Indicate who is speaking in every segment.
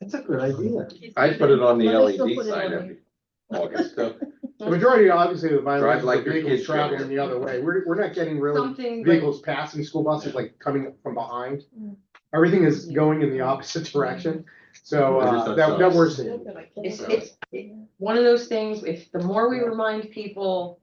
Speaker 1: That's a good idea.
Speaker 2: I put it on the
Speaker 3: Let me still
Speaker 2: LED
Speaker 3: put it
Speaker 2: sign
Speaker 3: on
Speaker 2: every August, so
Speaker 4: The majority, obviously, of the
Speaker 2: Drive
Speaker 4: violations
Speaker 2: like
Speaker 4: are
Speaker 2: your
Speaker 4: vehicles
Speaker 2: kids drive.
Speaker 4: traveling the other way. We're, we're not getting really
Speaker 3: Something, like-
Speaker 4: vehicles passing school buses, like coming from behind.
Speaker 3: Mm.
Speaker 4: Everything is going in the opposite direction, so,
Speaker 2: I just
Speaker 4: uh,
Speaker 2: thought
Speaker 4: that,
Speaker 2: so.
Speaker 4: that we're seeing.
Speaker 5: It's, it's it- one of those things, if the more we remind people,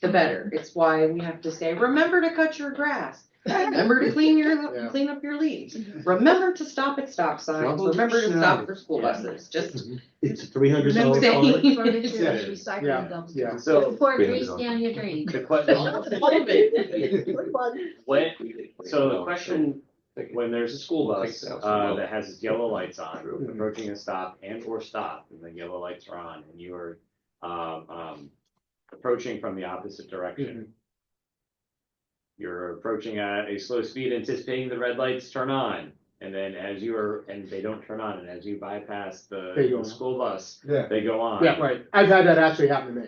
Speaker 5: the better. It's why we have to say, remember to cut your grass. Remember to clean
Speaker 4: Yeah.
Speaker 5: your, clean up your leaves. Remember to stop at stop signs.
Speaker 1: Double
Speaker 5: Remember to stop
Speaker 1: signs.
Speaker 5: for school buses. Just
Speaker 1: It's three hundred dollars.
Speaker 5: saying.
Speaker 4: Yeah,
Speaker 3: furniture,
Speaker 4: yeah,
Speaker 3: recycling dumps.
Speaker 4: yeah.
Speaker 6: So
Speaker 3: Pour
Speaker 2: We
Speaker 3: grease
Speaker 2: have it on.
Speaker 3: down your drain.
Speaker 6: the question, when, so the question, when there's a school bus, uh, that has its yellow lights on, approaching a stop and or stop, and the yellow lights are on, and you are, um, um, approaching from the opposite
Speaker 4: Mm-hmm.
Speaker 6: direction. You're approaching at a slow speed anticipating the red lights turn on, and then as you are, and they don't turn on, and as you bypass the,
Speaker 4: They go
Speaker 6: the
Speaker 4: on.
Speaker 6: school bus,
Speaker 4: Yeah.
Speaker 6: they go on.
Speaker 4: Yeah, right. I've had that actually happen to me.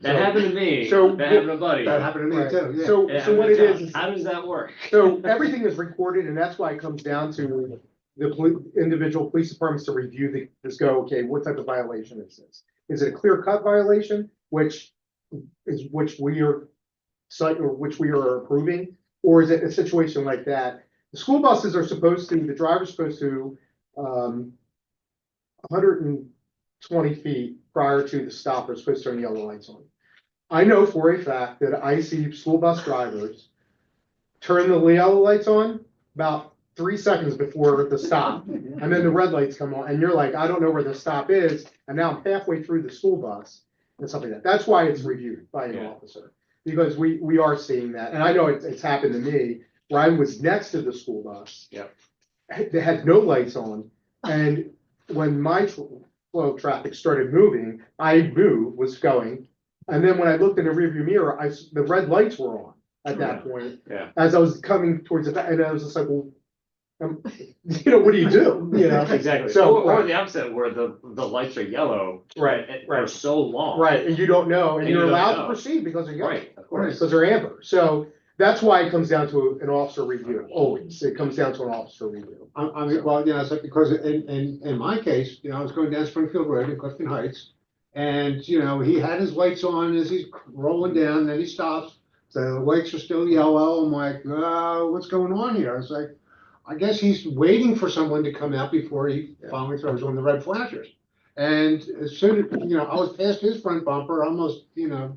Speaker 6: That happened to me,
Speaker 4: So-
Speaker 6: that happened to Buddy.
Speaker 4: happened
Speaker 1: to me too, yeah.
Speaker 4: So,
Speaker 6: It
Speaker 4: so
Speaker 6: happened
Speaker 4: what
Speaker 6: to
Speaker 4: it is,
Speaker 6: John.
Speaker 4: is-
Speaker 6: How does that work?
Speaker 4: so everything is recorded, and that's why it comes down to the poli- individual police departments to review the, just go, okay, what type of violation is this? Is it a clear cut violation, which is, which we are cite, or which we are approving? Or is it a situation like that? The school buses are supposed to, the driver's supposed to, um, hundred and twenty feet prior to the stop are supposed to turn yellow lights on. I know for a fact that I see school bus drivers turn the yellow lights on about three seconds before the stop. And then the red lights come on and you're like, I don't know where the stop is. And now I'm halfway through the school bus and something like that. That's why it's reviewed by an
Speaker 6: Yeah.
Speaker 4: officer. Because we, we are seeing that. And I know it's, it's happened to me where I was next to the school bus.
Speaker 6: Yep.
Speaker 4: had- They had no lights on. And when my tr- flow of traffic started moving, I knew was going. And then when I looked in the rearview mirror, I, s- the red lights were on at that point.
Speaker 6: Yeah.
Speaker 4: As I was coming towards the, back, and I was just like, well, um, you know, what do you do? You know?
Speaker 6: Exactly. So,
Speaker 4: So-
Speaker 6: or the opposite where the, the lights are yellow. and- For so long.
Speaker 4: Right, and you don't know, and
Speaker 6: And you
Speaker 4: you're
Speaker 6: don't
Speaker 4: allowed to
Speaker 6: know.
Speaker 4: proceed because you're young.
Speaker 6: Right, of course.
Speaker 4: Because they're amber. So that's why it comes down to an officer review, always. It comes down to an officer review.
Speaker 7: I, I mean, well, you know, so because in, in, in my case, you know, I was going down Springfield Road in Clifton Heights. And, you know, he had his lights on as he's rolling down, then he stops. The lights are still yellow. I'm like, uh, what's going on here? I was like, I guess he's waiting for someone to come out before he finally throws on the red flashers. And as soon as, you know, I was past his front bumper, almost, you know,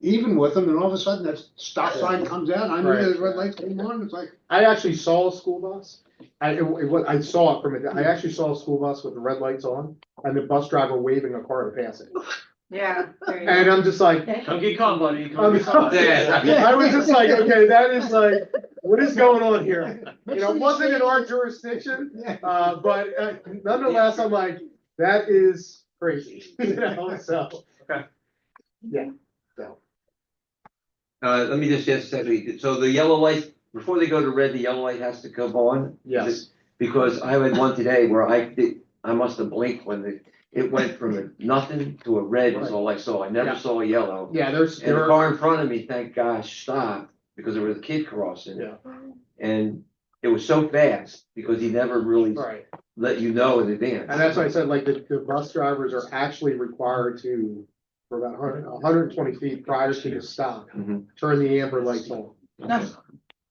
Speaker 7: even with him, and all of a sudden that stop sign comes out. I knew
Speaker 4: Right.
Speaker 7: those red lights came on. It's like,
Speaker 4: I actually saw a school bus. I, it, it wa- I saw it from, a- I actually saw a school bus with the red lights on and the bus driver waving a car to pass it.
Speaker 5: yeah.
Speaker 4: And I'm just like,
Speaker 6: Come get caught, buddy.
Speaker 4: I'm
Speaker 6: Come get caught.
Speaker 2: Yeah.
Speaker 4: I was just like, okay, that is like, what is going on here? You know, it wasn't in our jurisdiction,
Speaker 7: yeah.
Speaker 4: uh, but uh, nonetheless, I'm like, that is crazy, you know, so.
Speaker 2: uh, let me just ask, Stephanie, so the yellow light, before they go to red, the yellow light has to come on? Is it- Because I had one today where I did, I must have blinked when the, it went from a nothing to a red is all I saw, I never
Speaker 4: Yeah.
Speaker 2: saw a yellow.
Speaker 4: Yeah, there's,
Speaker 2: And the
Speaker 4: there are,
Speaker 2: car in front of me, thank gosh, stopped, because there was a kid crossing.
Speaker 4: Yeah.
Speaker 2: And it was so fast, because he never really
Speaker 4: right,
Speaker 2: let you know in advance.
Speaker 4: and that's why I said, like, the, the bus drivers are actually required to, for about hundred, hundred and twenty feet prior to the stop,
Speaker 2: Mhm.
Speaker 4: turn the amber lights on.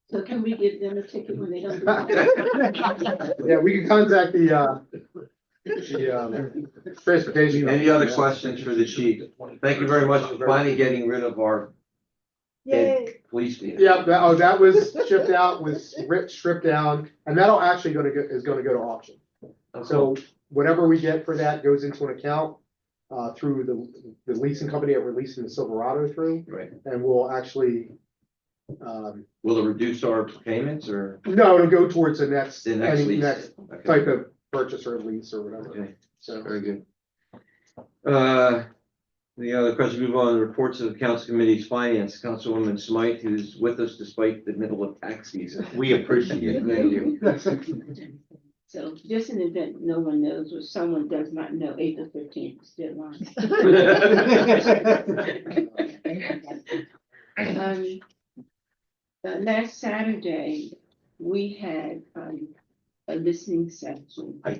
Speaker 3: So can we give them a ticket when they don't?
Speaker 4: Yeah, we can contact the, uh, the, um, transportation.
Speaker 2: Any other
Speaker 4: company.
Speaker 2: questions for the chief? Thank you very much for finally getting rid of our dead police vehicle.
Speaker 4: Yeah, that, oh, that was shipped out, was ripped, stripped down, and that'll actually gonna go, is gonna go to auction. So whatever we get for that goes into an account, uh, through the, the leasing company that we're leasing the Silverado through,
Speaker 2: Right,
Speaker 4: and we'll actually, um,
Speaker 2: will it reduce our payments or
Speaker 4: no, it'll go towards the next,
Speaker 2: the next
Speaker 4: any
Speaker 2: lease?
Speaker 4: next
Speaker 2: Okay.
Speaker 4: type of purchase or lease or whatever,
Speaker 2: Okay,
Speaker 4: so.
Speaker 2: very good. Uh, the other question, move on, reports of the council committee's finance, Councilwoman Smythe, who's with us despite the middle of tax season. We appreciate it. Thank you.
Speaker 8: So just in the event no one knows or someone does not know, April fifteenth is deadline.
Speaker 4: uh,
Speaker 8: Um, uh, last Saturday, we had, um, a listening session